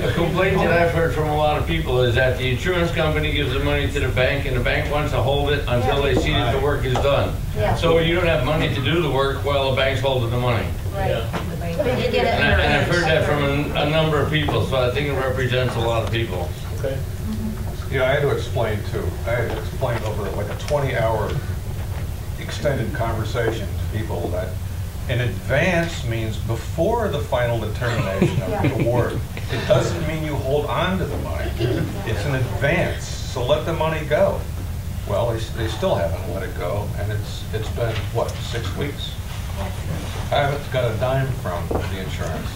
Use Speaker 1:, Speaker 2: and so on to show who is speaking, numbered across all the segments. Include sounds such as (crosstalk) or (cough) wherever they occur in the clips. Speaker 1: The complaint that I've heard from a lot of people is that the insurance company gives the money to the bank and the bank wants to hold it until they see that the work is done.
Speaker 2: Yeah.
Speaker 1: So you don't have money to do the work while the bank's holding the money.
Speaker 2: Right. But you did it.
Speaker 1: And I- and I've heard that from a a number of people, so I think it represents a lot of people.
Speaker 3: Okay.
Speaker 4: Yeah, I had to explain too. I had to explain over like a 20-hour extended conversation to people that in advance means before the final determination of the award. It doesn't mean you hold on to the money. It's in advance, so let the money go. Well, they, s- they still haven't let it go, and it's, it's been, what, six weeks? I haven't got a dime from the insurance.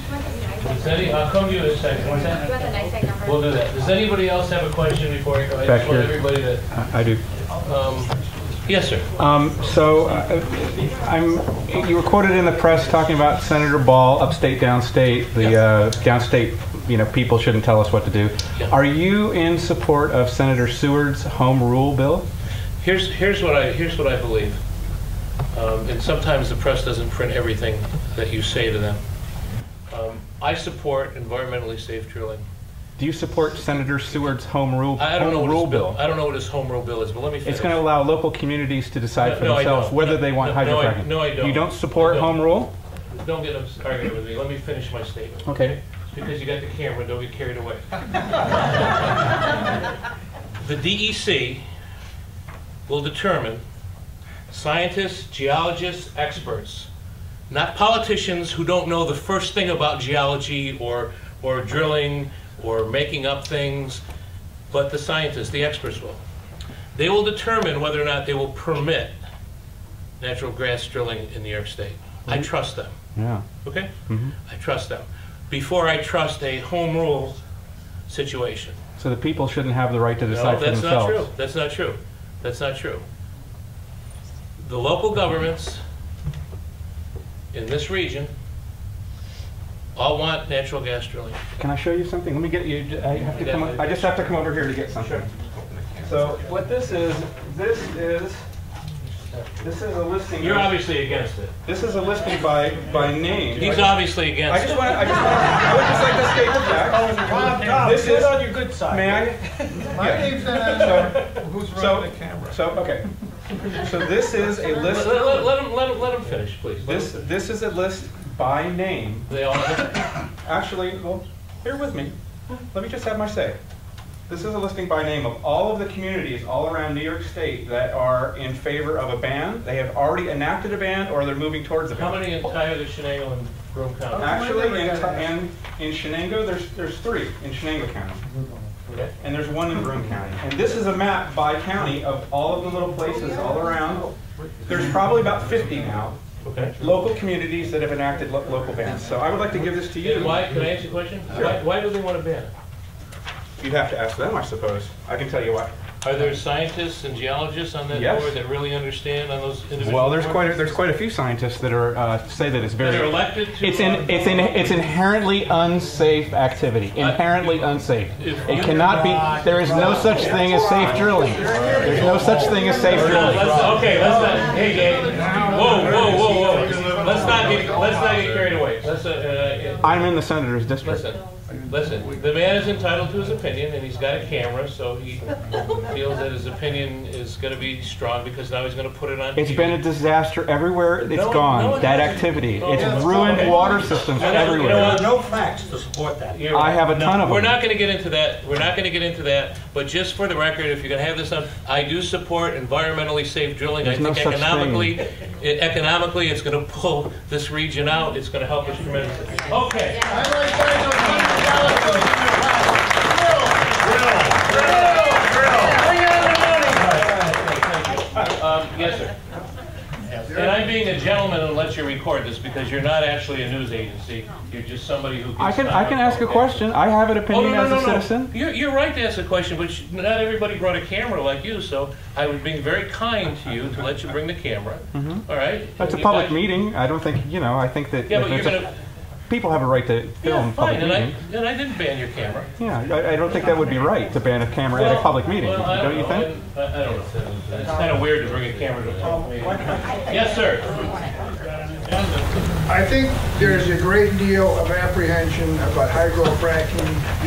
Speaker 3: Does any, I'll come to you in a second, one
Speaker 5: Do you
Speaker 3: second.
Speaker 5: have the NICEAG number?
Speaker 3: We'll do that. Does anybody else have a question before I go? I just
Speaker 6: Back
Speaker 3: want
Speaker 6: here.
Speaker 3: everybody to,
Speaker 6: I I do.
Speaker 3: um, yes, sir.
Speaker 6: Um, so, uh, I'm, you were quoted in the press talking about Senator Ball, upstate, downstate, the, uh, downstate, you know, people shouldn't tell us what to do.
Speaker 3: Yeah.
Speaker 6: Are you in support of Senator Seward's home rule bill?
Speaker 3: Here's, here's what I, here's what I believe. Um, And sometimes the press doesn't print everything that you say to them. Um, I support environmentally safe drilling.
Speaker 6: Do you support Senator Seward's home rule,
Speaker 3: I I don't know
Speaker 6: home
Speaker 3: what
Speaker 6: rule
Speaker 3: his bill,
Speaker 6: bill?
Speaker 3: I don't know what his home rule bill is, but let me finish.
Speaker 6: It's gonna allow local communities to decide for
Speaker 3: No, no, I
Speaker 6: themselves
Speaker 3: don't.
Speaker 6: whether they want
Speaker 3: No, no, I-
Speaker 6: hydrofracking.
Speaker 3: no, I don't.
Speaker 6: You don't support
Speaker 3: I don't.
Speaker 6: home rule?
Speaker 3: Don't get upset, arguing with me, let me finish my statement.
Speaker 6: Okay.
Speaker 3: It's because you got the camera, don't get carried away. The DEC will determine scientists, geologists, experts, not politicians who don't know the first thing about geology or, or drilling or making up things, but the scientists, the experts will. They will determine whether or not they will permit natural gas drilling in New York State. I trust them.
Speaker 6: Yeah.
Speaker 3: Okay?
Speaker 6: Mm-hmm.
Speaker 3: I trust them. Before I trust a home rule situation.
Speaker 6: So the people shouldn't have the right to decide
Speaker 3: No,
Speaker 6: for
Speaker 3: that's
Speaker 6: themselves?
Speaker 3: not true. That's not true. That's not true. The local governments in this region all want natural gas drilling.
Speaker 6: Can I show you something? Let me get you. I have to come. I just have to come over here to get something. So what this is, this is, this is a listing.
Speaker 3: You're obviously against it.
Speaker 6: This is a listing by by name.
Speaker 3: He's obviously
Speaker 6: I
Speaker 3: against
Speaker 6: just
Speaker 3: it.
Speaker 6: want. I just want. I would just like to state the fact. This is on your good side. May I?
Speaker 4: My name's not, who's
Speaker 6: So so okay. So this is a
Speaker 3: Let,
Speaker 6: list.
Speaker 3: let- let him, let him, let him finish, please. Let
Speaker 6: This
Speaker 3: him finish.
Speaker 6: this is a list by name.
Speaker 3: They (laughs) all,
Speaker 6: Actually, well, here with me. Let me just have my say. This is a listing by name of all of the communities all around New York State that are in favor of a ban. They have already enacted a ban or they're moving towards a
Speaker 3: how
Speaker 6: ban.
Speaker 3: many in Tioga, Chenango, and Broome County?
Speaker 6: Actually, in, in, in Shenango, there's, there's three in Shenango County.
Speaker 3: Okay.
Speaker 6: And there's one in Broome County. And this is a map by county of all of the little places all around. There's probably about 50 now,
Speaker 3: Okay.
Speaker 6: local communities that have enacted lo- local bans. So I would like to give this to you.
Speaker 3: And why, can I ask you a question? Why, why do they want to ban it?
Speaker 6: You'd have to ask them, I suppose. I can tell you why.
Speaker 3: Are there scientists and geologists on that
Speaker 6: Yes.
Speaker 3: board that really understand on those individual?
Speaker 6: Well, there's quite a,
Speaker 3: boards?
Speaker 6: there's quite a few scientists that are uh, say that it's very.
Speaker 3: That are elected to. uh,
Speaker 6: It's in, it's in, it's inherently unsafe activity. Inherently unsafe. It cannot be. There is no such thing as safe drilling. There's no such thing as safe
Speaker 3: No,
Speaker 6: drilling.
Speaker 3: let's- Okay, let's not, hey, gang, whoa, whoa, whoa, whoa, let's not get, let's not get carried away, let's, uh, uh,
Speaker 6: I'm in the senator's district.
Speaker 3: listen, listen, the man is entitled to his opinion, and he's got a camera, so he feels that his opinion is gonna be strong, because now he's gonna put it on.
Speaker 6: It's
Speaker 3: TV.
Speaker 6: been a disaster everywhere. It's
Speaker 3: No, no,
Speaker 6: gone.
Speaker 3: it
Speaker 6: That
Speaker 3: hasn't.
Speaker 6: activity.
Speaker 3: No,
Speaker 6: It's
Speaker 3: it's- okay.
Speaker 6: ruined water systems
Speaker 3: You know- you know
Speaker 6: everywhere.
Speaker 3: what?
Speaker 7: no facts to support that.
Speaker 3: You're-
Speaker 6: I have a ton of
Speaker 3: We're
Speaker 6: them.
Speaker 3: not going to get into that. We're not going to get into that. But just for the record, if you're going to have this on, I do support environmentally safe drilling.
Speaker 6: There's
Speaker 3: I
Speaker 6: no
Speaker 3: think
Speaker 6: such
Speaker 3: economically, it, economically, it's going to pull this region out. It's going to help us tremendously. Okay. Um, yes, sir. And I'm being a gentleman and let you record this because you're not actually a news agency. You're just somebody who.
Speaker 6: I
Speaker 3: gets
Speaker 6: can
Speaker 3: time
Speaker 6: I can
Speaker 3: out.
Speaker 6: ask a
Speaker 3: Okay.
Speaker 6: question. I have an
Speaker 3: Oh,
Speaker 6: opinion
Speaker 3: no,
Speaker 6: as
Speaker 3: no,
Speaker 6: a
Speaker 3: no, no.
Speaker 6: citizen.
Speaker 3: You're, you're right to ask a question, but sh- not everybody brought a camera like you, so I was being very kind to you to let you bring the camera, all right?
Speaker 6: Mm-hmm. That's a
Speaker 3: You
Speaker 6: public
Speaker 3: guys-
Speaker 6: meeting. I don't think you know. I think that
Speaker 3: Yeah,
Speaker 6: if
Speaker 3: but you're
Speaker 6: there's a-
Speaker 3: gonna,
Speaker 6: people have a right to film
Speaker 3: yeah,
Speaker 6: public
Speaker 3: fine, and I,
Speaker 6: meetings.
Speaker 3: and I didn't ban your camera.
Speaker 6: Yeah, I, I don't think that would be right to ban a camera at a
Speaker 3: Well,
Speaker 6: public meeting,
Speaker 3: well, I
Speaker 6: don't you
Speaker 3: know.
Speaker 6: think?
Speaker 3: I I don't know, it's kind of weird to bring a camera to a public meeting. Yes, sir.
Speaker 8: I think there's a great deal of apprehension about hydrofracking